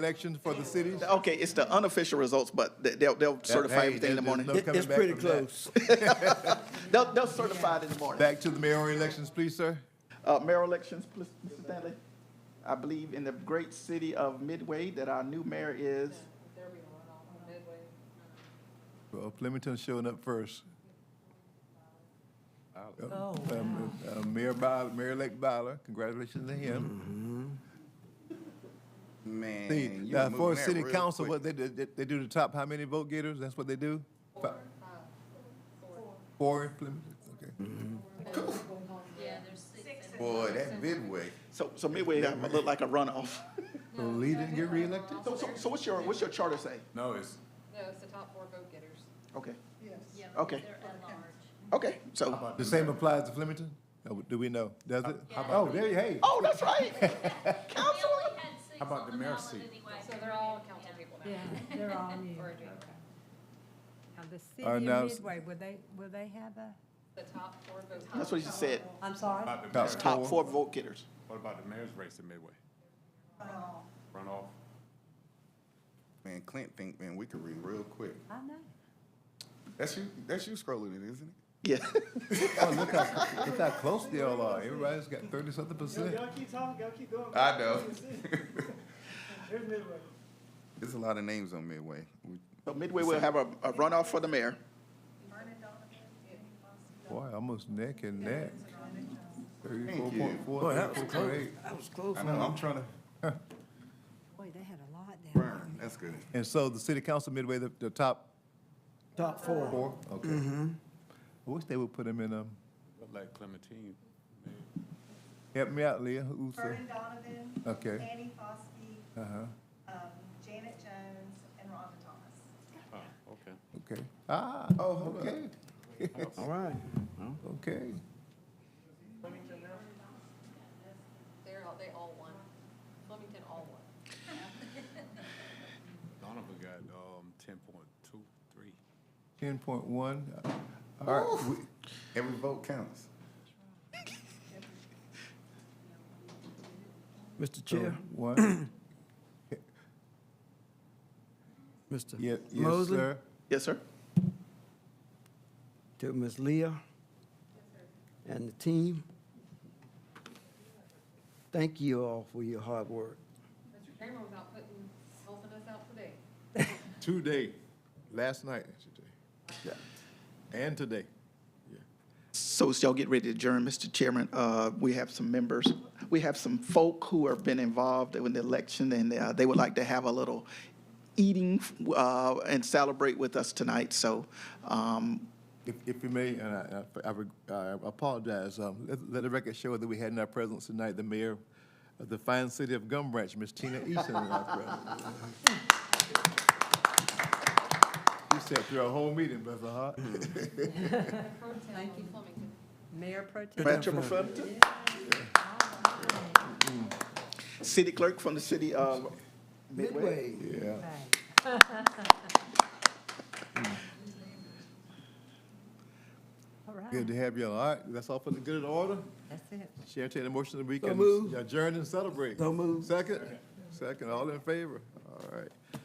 elections for the cities? Okay, it's the unofficial results, but they- they'll, they'll certify hey, everything in the there's- there's morning. no- It- coming It's back pretty from that. close. They'll, they'll certify it in the morning. Back to the mayoral elections, please, sir. Uh, mayor elections, please, Mr. Stanley. I believe in the great city of Midway that our new mayor is, Well, Flemington's showing up first. Oh, Um, uh, Mayor Byler, Mayor-elect Byler, congratulations to him. Mm. Man, See, you now, moving for a that city real council, quick. what they, do- they, they do the top, how many vote getters? That's what they do? Fi- Four in Flemington, okay. Yeah, there's six. Boy, that midway. so, so Midway look like a runoff. So Lee didn't get reelected? So, so, so what's your, what's your charter say? No, it's, No, it's the top four vote getters. Okay, Yeah, Oh. Okay. They're at large. okay, so, The same applies to Flemington? Oh, Do we know? Does it? Oh, there, you- hey. oh, that's right. We Council, only had six How about on the mayor's ballot seat? anyway. So they're all council people now. Yeah, they're all new. Or a dream. Now, the All right, city now of s- Midway, will they, will they have a, The top four vote getters. that's what you said, I'm sorry? about the Top mayor's, It's top four vote getters. what about the mayor's race in Midway? Runoff. Man, Clint think, man, we could read real quick. I know. That's you, that's you scrolling it, isn't it? Yeah, Oh, look how, look how close they all are. Everybody's got thirty-something percent. Y'all keep talking, y'all keep going. I know. There's midway. There's a lot of names on midway. We- so Midway will have a, a runoff for the mayor. Boy, almost neck and neck. Thirty-four Thank you. point four, thirty-four point eight. I know, I'm trying to, Boy, they had a lot down there. Burn, that's good. And so the city council midway, the, the top Top four. four? Okay. I wish they would put them in, um, Look like Clementine. help me out, Leah, who's the, Vernon Donovan. Okay. Annie Fosky, uh-huh, um, Janet Jones, and Rhonda Thomas. Oh, okay. okay. Ah, oh, okay, All right. okay. They're all, they all won. Flemington all won. Donovan got, um, ten point two, three. Ten point one. All right, we, Every vote counts. Mr. so Chair, one, yeah, Mr. yes, Mosley, sir. Yes, sir? to Ms. Leah and the team. Thank you all for your hard work. Mr. Kramer was out putting, helping us out today. Today, last night, I should say. And today. So as y'all get ready to adjourn, Mr. Chairman, uh, we have some members, we have some folk who have been involved in the election, and uh, they would like to have a little eating uh, and celebrate with us tonight. So um, If, if you may, and I, I- I reg- I apologize, um, let, let the record show that we had in our presence tonight the mayor of the fine city of Gum Branch, Miss Tina Easton, in our presence. She sat through a whole meeting, bless her heart. Thank you. Flemington. Mayor Pro Tem. Madam President, City Clerk from the city of Midway. Midway. Yeah. Right. All Good right, to have you. All right, that's all for the good of the order. that's it. Chair, take the motion that we can moved. adjourn and celebrate. So moved. Second? Second, all in favor? All right.